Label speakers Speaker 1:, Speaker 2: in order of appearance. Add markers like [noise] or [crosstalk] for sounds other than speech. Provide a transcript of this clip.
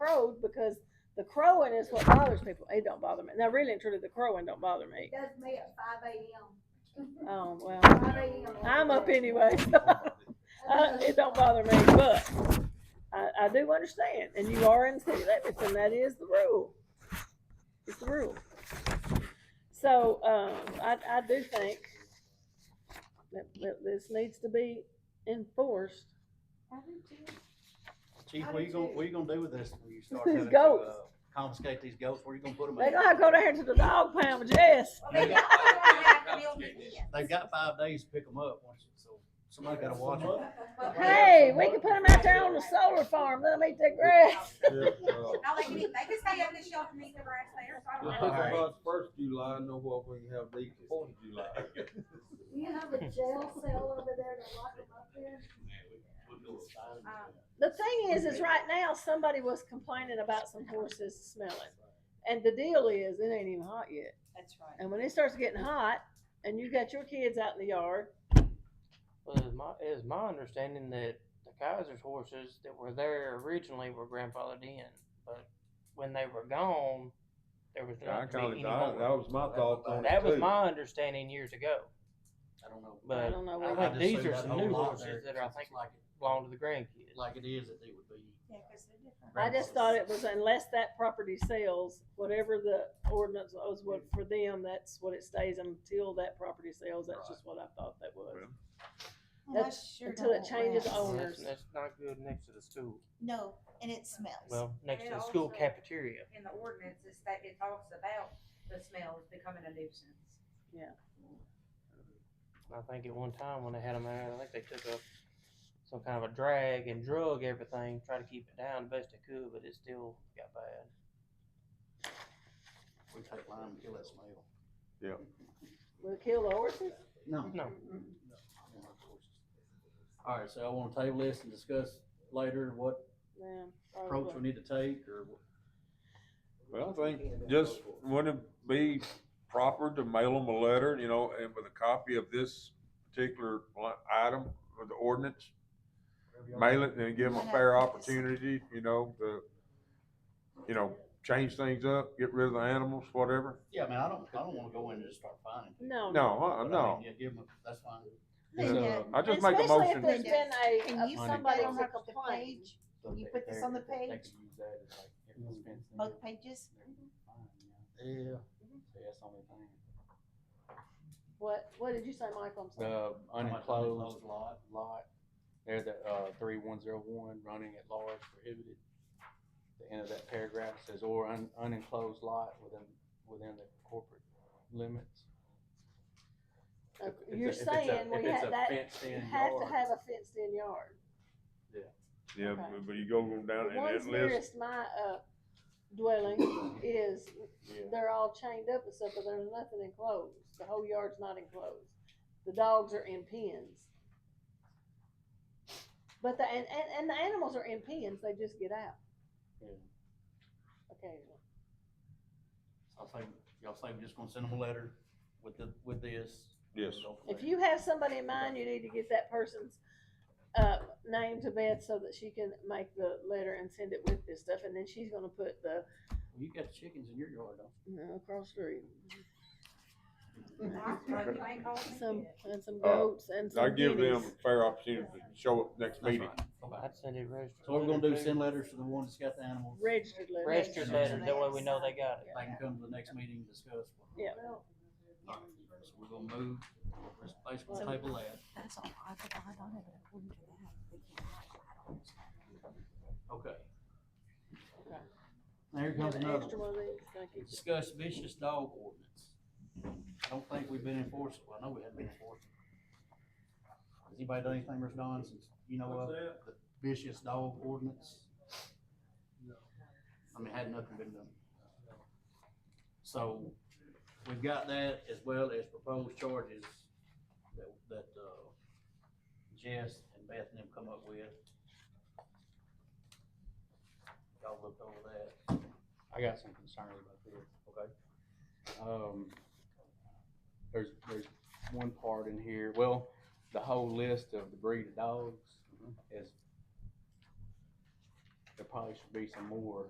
Speaker 1: crowed because the crowing is what bothers people. It don't bother me. Now, really and truly, the crowing don't bother me.
Speaker 2: does me at five AM.
Speaker 1: Oh, well,
Speaker 2: Five AM.
Speaker 1: I'm up Uh, anyway. [laughs] I-
Speaker 2: Okay.
Speaker 1: It don't bother me, but I, I do understand, and you are in city limits, and that is the rule. It's the rule. So, um, I, I do think that, that this needs to be enforced.
Speaker 3: Chief,
Speaker 2: I
Speaker 3: what
Speaker 2: do
Speaker 3: you gonna,
Speaker 2: too.
Speaker 3: what you gonna do with this when you start
Speaker 1: These
Speaker 3: having to,
Speaker 1: goats.
Speaker 3: uh, confiscate these goats? Where you gonna put them?
Speaker 1: They gonna have to go down here to the dog pound with Jess.
Speaker 2: Well, they got- they got to build it in.
Speaker 3: They've got five days to pick them up, once- so somebody gotta watch them.
Speaker 2: But we-
Speaker 1: Hey, we can put them out there on the solar farm, let them eat their grass.
Speaker 2: No, they can, eat- they can stay on the shelf and eat the grass there, so I
Speaker 4: We'll
Speaker 2: don't
Speaker 4: pick
Speaker 2: know.
Speaker 3: All right.
Speaker 4: them up first July, know what we can have these fourth of July.
Speaker 5: You have a jail cell over there to lock them up in?
Speaker 2: Um,
Speaker 1: The thing is, is right now, somebody was complaining about some horses smelling. And the deal is, it ain't even hot yet.
Speaker 2: That's right.
Speaker 1: And when it starts getting hot and you got your kids out in the yard,
Speaker 6: Well, it's my, it's my understanding that the Kaiser's horses that were there originally were grandfathered in, but when they were gone, there was
Speaker 4: I
Speaker 6: not to
Speaker 4: call
Speaker 6: be
Speaker 4: it,
Speaker 6: any
Speaker 4: that
Speaker 6: more.
Speaker 4: was my thoughts on it
Speaker 6: That was
Speaker 4: too.
Speaker 6: my understanding years ago,
Speaker 3: I don't know.
Speaker 1: I
Speaker 6: but
Speaker 1: don't know.
Speaker 6: I
Speaker 1: what-
Speaker 3: I
Speaker 6: think
Speaker 3: just
Speaker 6: these
Speaker 3: see
Speaker 6: are
Speaker 3: that
Speaker 6: some
Speaker 3: whole
Speaker 6: new
Speaker 3: lot
Speaker 6: horses
Speaker 3: there,
Speaker 6: that are, I
Speaker 3: it's
Speaker 6: think,
Speaker 3: like it-
Speaker 6: belong to the grandkids.
Speaker 3: Like it is, that they would be.
Speaker 2: Yeah, 'cause they're different.
Speaker 1: I just thought it was unless that property sells, whatever the ordinance was what for them, that's what it stays until that property sells. That's just what I thought that was.
Speaker 7: Unless you're
Speaker 1: until it
Speaker 7: gonna
Speaker 1: changes
Speaker 7: rest.
Speaker 1: owners.
Speaker 6: That's, that's not good next to the school,
Speaker 7: No, and it smells.
Speaker 6: well, next to
Speaker 2: And
Speaker 6: the school
Speaker 2: also-
Speaker 6: cafeteria.
Speaker 2: In the ordinance, it's that it talks about the smell is becoming a nuisance.
Speaker 6: I think at one time when they had them out, I think they took up some kind of a drag and drug everything, try to keep it down the best they could, but it still got bad.
Speaker 3: We take lime and kill that smell.
Speaker 1: Will it kill the horses?
Speaker 3: No.
Speaker 6: No.
Speaker 3: All right, so I wanna table this and discuss later what
Speaker 1: Yeah.
Speaker 3: approach we
Speaker 1: probably.
Speaker 3: need to take or. what-
Speaker 4: Well, I think just would it be proper to mail them a letter, you know, and with a copy of this particular li- item of the ordinance?
Speaker 3: whatever y'all-
Speaker 4: Mail it and give them a fair opportunity, you know, to, you know, change things up, get rid of the animals, whatever.
Speaker 3: Yeah, I mean, I don't, I don't wanna go in and just start finding. people,
Speaker 1: No.
Speaker 4: No,
Speaker 3: but I
Speaker 4: uh,
Speaker 3: mean,
Speaker 4: no.
Speaker 3: Yeah, give them, that's fine.
Speaker 4: Yeah.
Speaker 7: Linda,
Speaker 4: I just make
Speaker 1: Especially
Speaker 4: a
Speaker 1: if
Speaker 4: motion.
Speaker 1: there's been a,
Speaker 7: Can you
Speaker 1: a-
Speaker 7: put
Speaker 1: somebody
Speaker 7: that on
Speaker 1: to
Speaker 7: the
Speaker 1: complain.
Speaker 7: page, Can you put this on the page?
Speaker 1: Oh.
Speaker 7: both pages?
Speaker 3: Yeah.
Speaker 1: What, what did you say, Michael? I'm sorry.
Speaker 8: The unenclosed
Speaker 3: lot.
Speaker 8: lot, there's a, uh, three one zero one, running at large prohibited. The end of that paragraph says, or un- unenclosed lot within, within the corporate limits.
Speaker 1: Uh,
Speaker 8: If- if it-
Speaker 1: You're
Speaker 8: if it's a-
Speaker 1: saying
Speaker 8: if
Speaker 1: we
Speaker 8: it's
Speaker 1: had
Speaker 8: a
Speaker 1: that, you
Speaker 8: fenced-in
Speaker 1: have to
Speaker 8: yard.
Speaker 1: have a fenced-in yard.
Speaker 4: Yeah,
Speaker 1: Okay.
Speaker 4: but you go down
Speaker 1: The
Speaker 4: and
Speaker 1: ones
Speaker 4: that list,
Speaker 1: nearest my, uh, dwelling [coughs] is,
Speaker 8: Yeah.
Speaker 1: they're all chained up and stuff, but there's nothing enclosed. The whole yard's not enclosed. The dogs are in pens. But the, and, and, and the animals are in pens, they just get out.
Speaker 3: Yeah.
Speaker 1: Occasionally.
Speaker 3: I think, y'all think we're just gonna send them a letter with the, with this?
Speaker 4: yes.
Speaker 3: Go from
Speaker 1: If
Speaker 3: there.
Speaker 1: you have somebody in mind, you need to get that person's, uh, name to Beth so that she can make the letter and send it with this stuff, and then she's gonna put the,
Speaker 3: Well, You got chickens in your yard, don't you?
Speaker 1: you know, across the street,
Speaker 2: Mark, well, you ain't called me
Speaker 1: some,
Speaker 2: yet.
Speaker 1: and some
Speaker 4: Uh,
Speaker 1: goats and some
Speaker 4: I give them
Speaker 1: guineas.
Speaker 4: a fair opportunity to show up next
Speaker 3: That's
Speaker 4: meeting.
Speaker 3: right. Okay.
Speaker 6: I'd send it registered.
Speaker 3: So what we're gonna do,
Speaker 6: letter
Speaker 3: is
Speaker 6: too.
Speaker 3: send letters to the ones that's got the animals. They
Speaker 1: Registered letters.
Speaker 6: Registered
Speaker 3: Registered
Speaker 6: letters, that way
Speaker 7: letters.
Speaker 6: we know they got it.
Speaker 3: can come to the next meeting and discuss.
Speaker 1: Yeah.
Speaker 3: All right, So we're gonna move, let's basically table that.
Speaker 7: That's all, I could, I don't have a word for that. We can't write. I don't know.
Speaker 3: Okay.
Speaker 1: Okay.
Speaker 3: Now here
Speaker 1: You have
Speaker 3: comes
Speaker 1: an
Speaker 3: another
Speaker 1: extra
Speaker 3: one.
Speaker 1: one of these, can I keep it?
Speaker 3: Discuss vicious dog ordinance. I don't think we've been enforcing, well, I know we haven't been enforcing. Has anybody done anything, Mr. Don, since, you know, of the vicious dog ordinance? I mean, had nothing been done. So, we've got that as well as proposed charges that, that, uh, Jess and Beth and them come up with. Y'all looked over that.
Speaker 8: I got some concerns about this.
Speaker 3: Okay.
Speaker 8: Um, there's, there's one part in here, well, the whole list of the breed of dogs is, there probably should be some more